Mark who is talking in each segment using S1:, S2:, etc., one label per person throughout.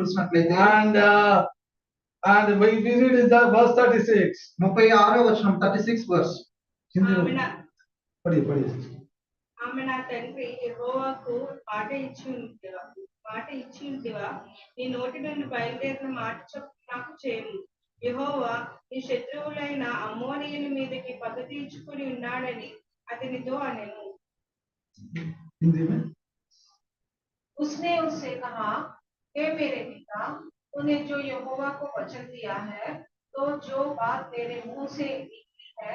S1: చూసినట్లయితే
S2: And, uh, and we we read is the verse thirty-six.
S1: ముప్పై ఆరో వచనం థర్టీ సిక్స్ వర్స్
S2: Hindi,
S3: ఆమెన
S2: Padi, padi.
S3: ఆమె నా తండ్రి యెహోవాకు మాట ఇచ్చి ఉంటివా మాట ఇచ్చి ఉంటివా నీ నోటి నుండి బయలుదేరిన మాట చొప్పున నాకు చేయము యెహోవా నీ శత్రువులైన అమ్మోనీయుల మీదకి పగ తీర్చుకుని ఉన్నాడని అతనితో అనెను
S2: हिंदी में
S3: उसने उससे कहा हे मेरे पिता तूने जो यहोवा को वचन दिया है तो जो बात मेरे मुंह से निकली है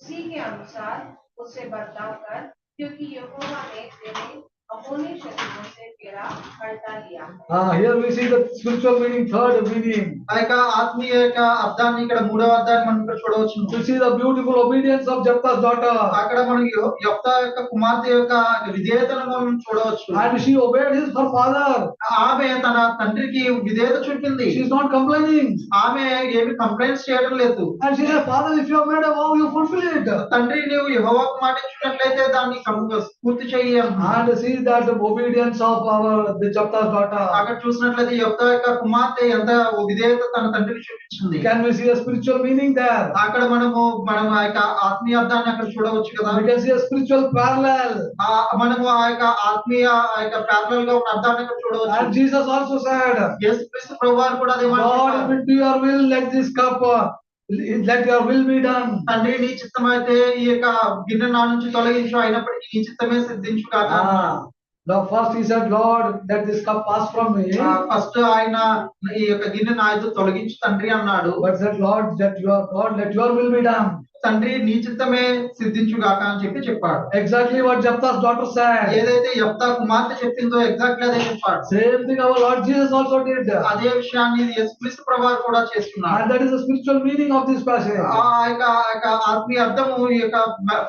S3: उसी के अनुसार उसे बर्ताव कर क्योंकि यहोवा ने तेरे अमोने शत्रुओं से तेरा हटा लिया है
S2: Ah, here we see the spiritual meaning, third meaning.
S1: ఆ యొక్క ఆత్మీయ యొక్క అర్థాన్ని ఇక్కడ మూడవ అర్థాన్ని మనం ఇక్కడ చూడవచ్చు
S2: We see the beautiful obedience of Jephthah's daughter.
S1: అక్కడ మనం యొ- యొప్త యొక్క కుమార్తె యొక్క విధేయతను మనం చూడవచ్చు
S2: And she obeyed his her father.
S1: ఆమె తన తండ్రికి విధేయత చూపింది
S2: She is not complaining.
S1: ఆమె ఏమి కంప్లైంట్స్ చేయడం లేదు
S2: And she said, Father, if you have made a vow, you fulfill it.
S1: తండ్రి నీవు యెహోవాకు మాట ఇచ్చినట్లయితే దాన్ని కం- పూర్తి చేయి అన్నాడు.
S2: And see that the obedience of our the Jephthah's daughter.
S1: అక్కడ చూసినట్లయితే యొక్క యొక్క కుమార్తె ఎంత విధేయత తన తండ్రికి చూపించింది
S2: Can we see a spiritual meaning there?
S1: అక్కడ మనము మనం ఆ యొక్క ఆత్మీయ అర్థాన్ని అక్కడ చూడవచ్చు కదా
S2: We can see a spiritual parallel.
S1: ఆ- మనము ఆ యొక్క ఆత్మీయ ఆ యొక్క ప్యారలల్ గా ఉన్న అర్థాన్ని అక్కడ
S2: And
S1: చూడవచ్చు
S2: Jesus also said,
S1: యేసు క్రీస్తు ప్రభు వారు కూడా అదే మాట
S2: God,
S1: చెప్పారు.
S2: if it be your will, let this cup, uh, let your will be done.
S1: తండ్రి నీ చిత్తం అయితే ఈ యొక్క గిన్నె నా నుంచి తొలగించు అయినప్పటికీ నీ చిత్తమే సిద్ధించు కాక
S2: Ah, now first he said, Lord, let this cup pass from me.
S1: First ఆయన ఈ యొక్క గిన్నె నా అయితే తొలగించు తండ్రి అన్నాడు
S2: But said, Lord, that your, God, let your will be done.
S1: తండ్రి నీ చిత్తమే సిద్ధించు కాక అని చెప్పి చెప్పాడు
S2: Exactly what Jephthah's daughter said.
S1: ఏదైతే యెఫ్తా కుమార్తె చెప్పిందో ఎగ్జాక్ట్ అదే చెప్పాడు
S2: Same thing our Lord Jesus also did.
S1: అదే విషయాన్ని యేసు క్రీస్తు ప్రభు వారు కూడా చేస్తున్నారు
S2: And that is the spiritual meaning of this passage.
S1: ఆ యొక్క ఆ యొక్క ఆత్మీయ అర్థము ఈ యొక్క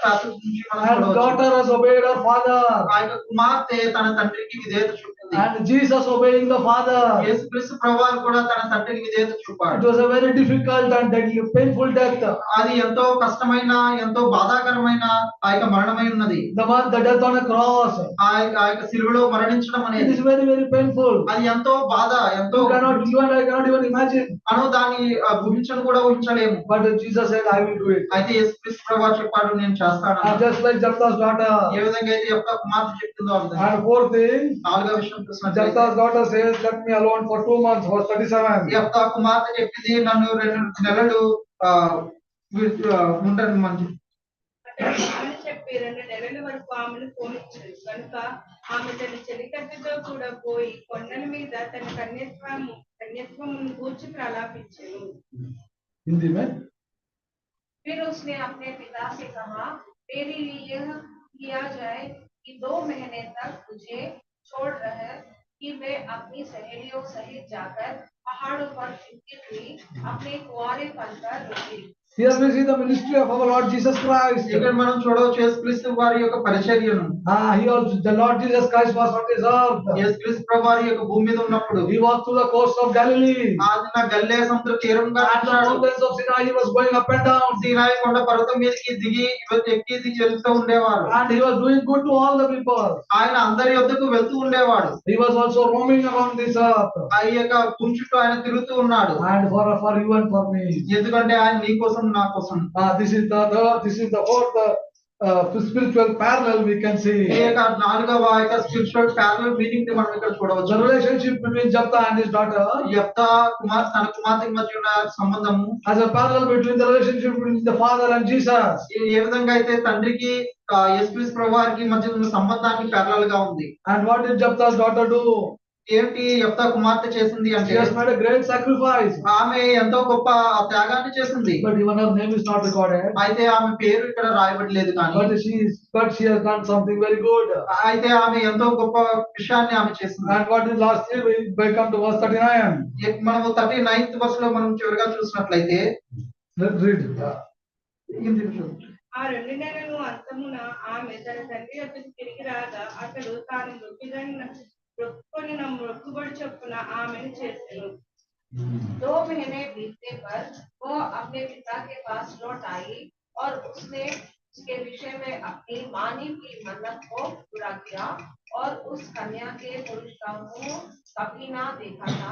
S1: passage నుంచి మనం
S2: And
S1: చూడవచ్చు.
S2: daughter has obeyed her father.
S1: ఆ యొక్క కుమార్తె తన తండ్రికి విధేయత చూపింది
S2: And Jesus obeying the father.
S1: యేసు క్రీస్తు ప్రభు వారు కూడా తన తండ్రికి విధేయత
S2: It
S1: చూపాడు
S2: was a very difficult and deadly, painful death.
S1: అది ఎంతో కష్టమైన ఎంతో బాధాకరమైన ఆ యొక్క మరణమై ఉన్నది
S2: The one, the death on a cross.
S1: ఆ యొక్క ఆ యొక్క సిలువలో మరణించడం
S2: It
S1: అనేది
S2: is very, very painful.
S1: అది ఎంతో బాధ ఎంతో
S2: You cannot, you and I cannot even imagine.
S1: మనం దాన్ని గురించను కూడా ఊహించలేము
S2: But Jesus said, I will do it.
S1: అయితే యేసు క్రీస్తు ప్రభు వారు చెప్పాడు నేను చేస్తాను
S2: And Uh, just like Jephthah's
S1: A
S2: daughter.
S1: విధంగా అయితే యొక్క కుమార్తె చెప్తుందో ఆ విధంగా
S2: And fourth thing,
S1: నాలుగో విషయం చూసినట్లయితే
S2: Jephthah's daughter says, let me alone for two months, verse thirty-seven.
S1: యొక్క కుమార్తె చెప్పింది నన్ను రెండు నెలలు ఆ, వి- ఆ, ఉండను మంచి
S3: అతడు ఆమె చెప్పి రెండు నెలల వరకు ఆమెను పోనిచ్చాడు కనుక ఆమె తన చెలికత్తెతో కూడా పోయి కొండల మీద తన కన్యత్వము కన్యత్వమును గూర్చి ప్రలాపించాను
S2: हिंदी में
S3: फिर उसने अपने पिता से कहा मेरे लिए यह किया जाए कि दो महीने तक तुझे छोड़ रहे कि मैं अपनी सहेलियों सहित जाकर पहाड़ों पर फिरती हुई अपने कुआरेपन पर रुकी
S2: Here we see the ministry of our Lord Jesus Christ.
S1: ఇక్కడ మనం చూడవచ్చు యేసు క్రీస్తు వారి యొక్క పరిచర్యను
S2: Ah, he also, the Lord Jesus Christ was on this earth.
S1: యేసు క్రీస్తు ప్రభు వారి యొక్క భూమి మీద ఉన్నప్పుడు
S2: He was through the coast of Galilee.
S1: ఆయన నా గల్లే సముద్ర తీరంగా
S2: And the
S1: నడిచాడు.
S2: mountains of Sinai, he was going up and down.
S1: సీనాయి కొండ పర్వతం మీదకి దిగి ఇవత్ ఎక్కి దిగి చెల్లుతూ ఉండేవారు
S2: And he was doing good to all the people.
S1: ఆయన అందరి యొద్దకు వెళ్తూ ఉండేవాడు
S2: He was also roaming around this earth.
S1: ఆ యొక్క భూమి చుట్టూ ఆయన తిరుగుతూ ఉన్నాడు
S2: And for, for you and for me.
S1: ఎందుకంటే ఆయన నీ కోసం నా కోసం
S2: Ah, this is the, third- this is the fourth, uh, spiritual parallel we can see.
S1: ఈ యొక్క నాలుగవ ఆ యొక్క స్పిరిచువల్ ప్యారల్ మీనింగ్ ని మనం ఇక్కడ
S2: The
S1: చూడవచ్చు
S2: relationship between Japta and his daughter
S1: యొక్క కుమార్ తన కుమార్తె మధ్య ఉన్న సంబంధము
S2: as a parallel between the relationship between the father and Jesus.
S1: ఏ- ఏ విధంగా అయితే తండ్రికి ఎస్పీఎస్ ప్రభువారికి మధ్య ఉన్న సంబంధానికి ప్యారల్ గా ఉంది
S2: And what did Japta's daughter do?
S1: ఏంటి యొక్క కుమార్తె చేసింది
S2: She
S1: అంటే
S2: has made a great sacrifice,
S1: ఆమె ఎంతో గొప్ప ఆ త్యాగాన్ని చేసింది
S2: but even her name is not recorded.
S1: అయితే ఆమె పేరు ఇక్కడ రాయబడలేదు కానీ
S2: But she is, but she has done something very good.
S1: అయితే ఆమె ఎంతో గొప్ప విషయాన్ని ఆమె చేసింది
S2: And what is lastly, we we come to verse thirty-nine.
S1: ఏ- మనము థర్టీ నైన్త్ బస్ లో మనం చివరిగా చూసినట్లయితే
S2: Let's read.
S1: ఇది చూడండి.
S3: ఆ రెండు నెలలు అంతమున ఆమె తన తండ్రి వద్దకు తిరిగి రాగా అతడు తాను మృక్కుదని మృక్కుని నా మృక్కుబడి చొప్పున ఆమెను చేసెను
S4: दो महीने बीतने पर वो अपने पिता के पास लौट आई और उसने उसके विषय में अपनी मानी की मन्नत को पूरा किया और उस कन्या के पुरुष का मुंह कभी ना देखा था